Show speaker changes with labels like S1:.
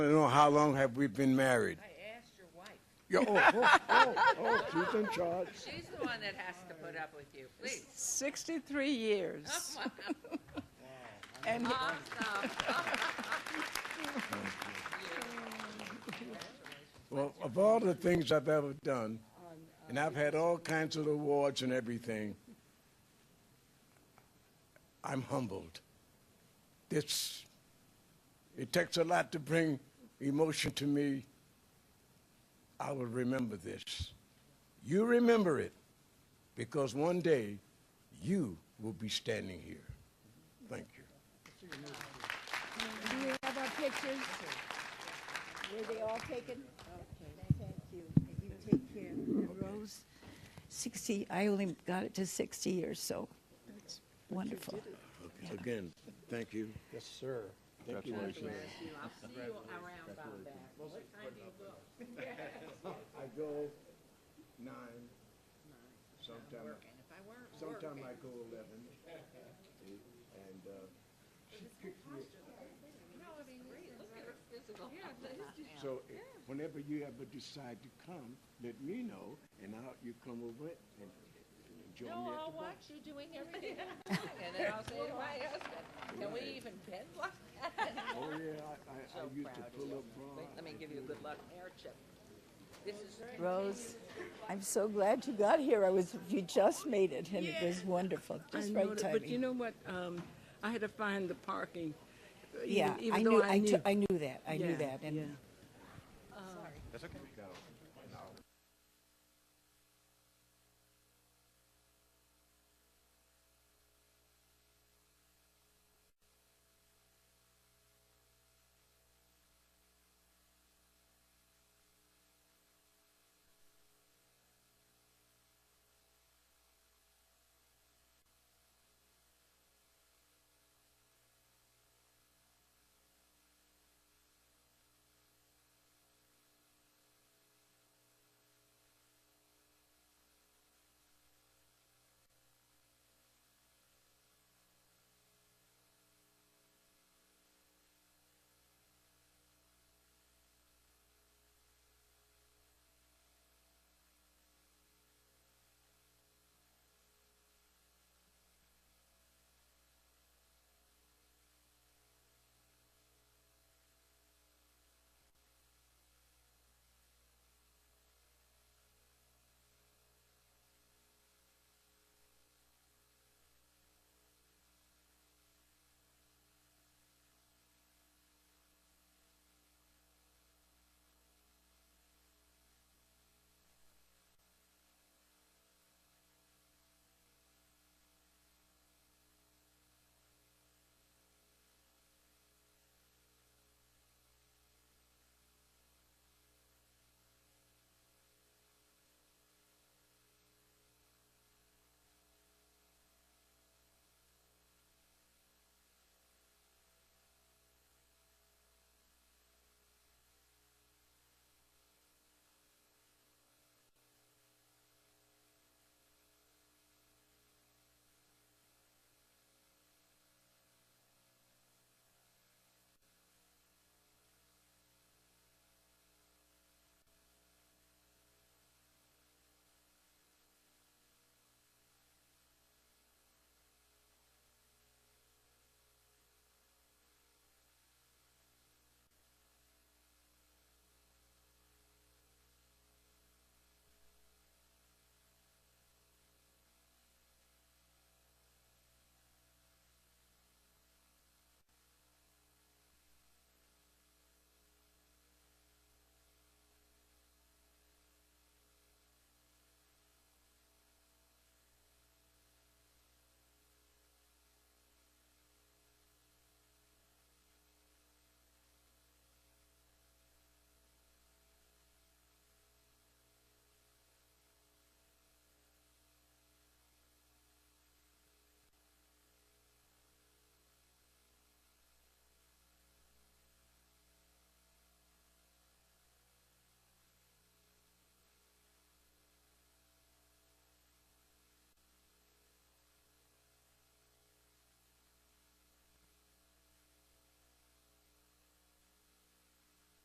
S1: I don't know how long have we been married.
S2: I asked your wife.
S1: Yeah, oh, oh, oh, oh, she's in charge.
S2: She's the one that has to put up with you, please.
S3: 63 years. And
S2: Awesome.
S1: Well, of all the things I've ever done, and I've had all kinds of awards and everything, I'm humbled. This, it takes a lot to bring emotion to me. I will remember this. You remember it because one day you will be standing here. Thank you.
S4: Do you have our pictures? Were they all taken?
S5: Thank you. And You take care. And Rose, 60, I only got it to 60 years, so it's wonderful.
S1: Okay. Again, thank you.
S6: Yes, sir.
S1: Congratulations.
S2: I'll see you around about that. What time do you go?
S1: I go nine, sometime,
S2: And if I were,
S1: sometime I go eleven. And, uh,
S2: no, I mean, look at her physical.
S1: so eh, whenever you ever decide to come, let me know and I'll, you come over and join me
S2: No,
S1: at the
S2: I'll
S1: bar.
S2: watch you doing everything. And then I'll say to my husband, can we even bend like that?
S1: Oh, yeah, I, I, I used to pull up bra.
S2: Wait, Let me give you a good luck hair chip. This is
S5: Rose, I'm so glad you got here. I was, you just made it, and it was wonderful.
S7: I
S5: Just
S7: know
S5: right
S7: that, But you
S5: timing.
S7: know what? Um, I had to find the parking. even-
S5: Yeah, I
S7: even though
S5: knew, I, t- I knew that, I knew
S7: Yeah,
S5: that. And
S7: yeah.
S6: That's okay.